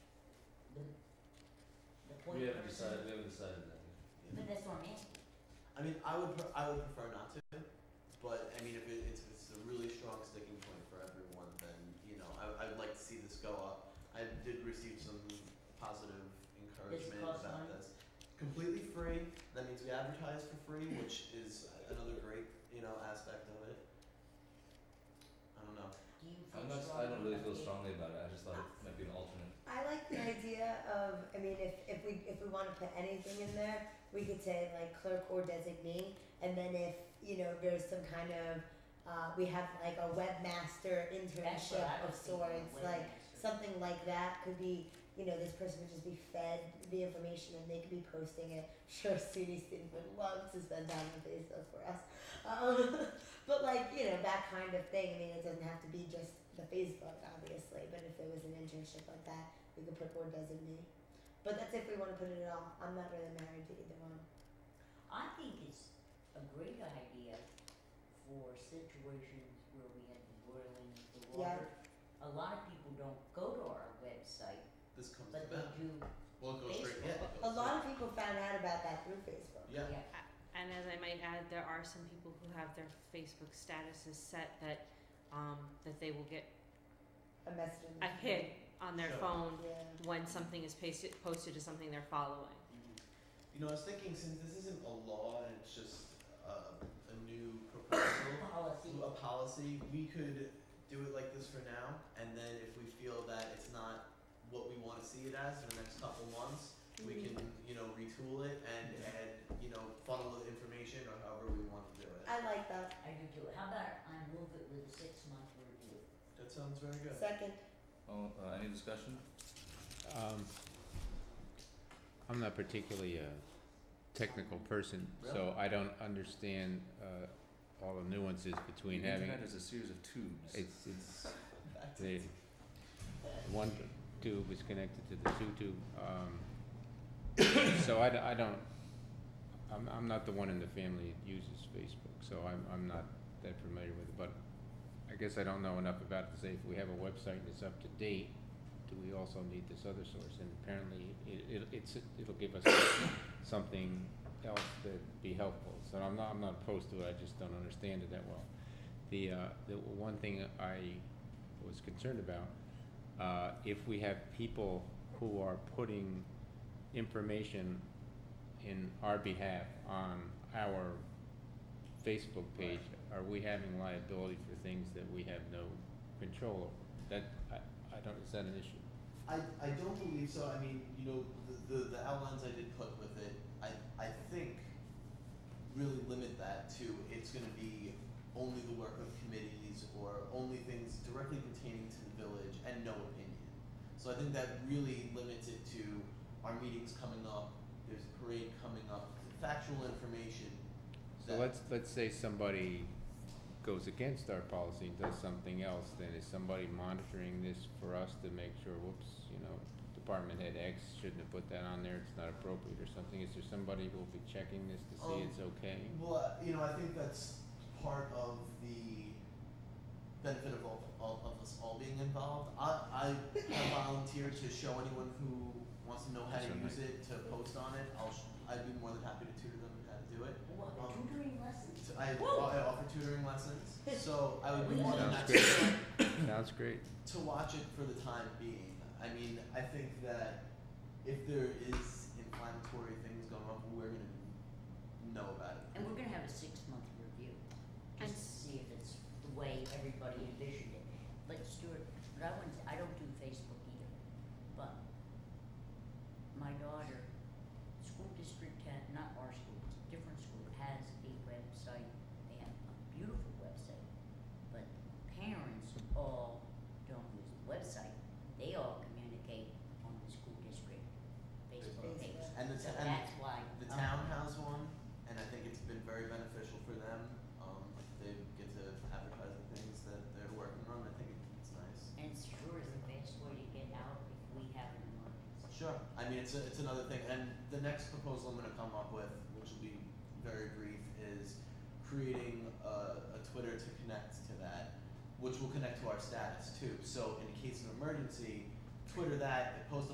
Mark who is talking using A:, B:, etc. A: appoint
B: We
A: a
B: haven't decided,
A: person.
B: we haven't decided that yet.
A: But that's what I mean.
C: I mean, I would, pre- I would prefer not to, but I mean, if it, it's, it's a really strong sticking point for everyone, then, you know, I, I'd like to see this go up. I did receive some positive encouragement
A: cost
C: about
A: money?
C: this. Completely free, that means we advertise for free, which is another great, you know, aspect of it. I don't know.
A: Do you feel
B: I'm not, I
A: strongly
B: don't really feel
A: about it?
B: strongly about it, I just thought it might be an alternate.
D: I like the idea of, I mean, if, if we if we want to put anything in there, we could say like clerk or designee, and then if you know there's some kind of, uh, we have like a webmaster
A: That's what
D: internship
A: I
D: of
A: was thinking
D: sorts,
A: of
D: like
A: webmaster.
D: something like that could be, you know, this person would just be fed the information and they could be posting it. Sure, SUNY student would love to spend time on Facebook for us, um, but like you know that kind of thing. I mean, it doesn't have to be just the Facebook, obviously, but if there was an internship like that, we could put or designee. But that's if we want to put it at all. I'm not really married to either one.
A: I think it's a great idea for situations where we have the boiling of the
D: Yeah.
A: water. A lot of people don't go to our website,
C: This comes
A: but they
C: to that.
A: do,
C: Well, it goes straight,
A: Facebook.
C: yeah. it
D: A
C: goes
D: lot of people found out about that through Facebook.
C: straight- Yeah.
A: yeah.
E: And as I might add, there are some people who have their Facebook statuses set that um, that they will get
D: A message. in the
E: a hit on their
C: Sure.
E: phone
D: Yeah.
E: when something is pasted, posted to something they're following.
A: Mm-hmm.
C: You know, I was thinking since this isn't a law and it's just uh, a new proposal,
A: Policy.
C: a policy, we could do it like this for now, and then if we feel that it's not what we want to see it as in the next couple months, we
D: Mm-hmm.
C: can, you know, retool it and and you know funnel the information or however we want to do it.
D: I like that.
A: I do too. How about I move it with a six month review?
C: That sounds very good.
D: Second.
B: Oh, uh, any discussion?
F: Um, I'm not particularly a technical person, so
C: Really?
F: I don't understand, uh, all the nuances between
B: The
F: having,
B: internet is a series of tubes.
F: it's, it's,
C: Back to
F: the, one tube is connected to the two tube, um, so I, d- I don't, I'm, I'm not the one in the family that uses Facebook, so I'm, I'm not that familiar with it, but I guess I don't know enough about it to say if we have a website and it's up to date, do we also need this other source? And apparently, it, it, it's, it'll give us something else that'd be helpful, so I'm not, I'm not opposed to it, I just don't understand it that well. The, uh, the one thing I was concerned about, uh, if we have people who are putting information in our behalf on our Facebook page, are we having liability for things that we have no control over? That, I, I don't, is that an issue?
C: I, I don't believe so. I mean, you know, the, the, the outlines I did put with it, I, I think really limit that to it's going to be only the work of committees or only things directly pertaining to the village and no opinion. So I think that really limits it to our meetings coming up, there's a parade coming up, factual information.
F: So
C: that-
F: let's, let's say somebody goes against our policy and does something else, then is somebody monitoring this for us to make sure, whoops, you know, department head X shouldn't have put that on there, it's not appropriate or something, is there somebody who will be checking this to see
C: Um,
F: it's okay?
C: Well, uh, you know, I think that's part of the benefit of all, all of us all being involved. I, I have volunteered to show anyone who wants to know how to use
F: That's
C: it to post on it. I'll sh- I'd be more than happy to tutor them how to do it.
A: What,
C: Um,
A: tutoring lessons?
C: So I,
A: Woo!
C: I offer tutoring lessons, so I would be more than
F: Sounds
C: happy
F: great. Sounds great.
C: to watch it for the time being. I mean, I think that if there is inflammatory things going on, we're gonna know about it.
A: And we're gonna have a six month review, just
E: And-
A: to see if it's the way everybody envisioned it. But Stuart, but I wouldn't, I don't do Facebook either, but my daughter, school district had, not our school, it's a different school, has a website, they have a beautiful website. But parents all don't use the website, they all communicate on the school district Facebook page.
D: Facebook.
C: And the
A: So
C: t- and
A: that's why.
C: The
A: um,
C: town has one, and I think it's been very beneficial for them. Um, they get to advertise the things that they're working on. I think it's nice.
A: And sure is the best way to get out if we have an emergency.
C: Sure. I mean, it's a, it's another thing. And the next proposal I'm going to come up with, which will be very brief, is creating a, a Twitter to connect to that, which will connect to our status too. So in case of emergency, Twitter that, post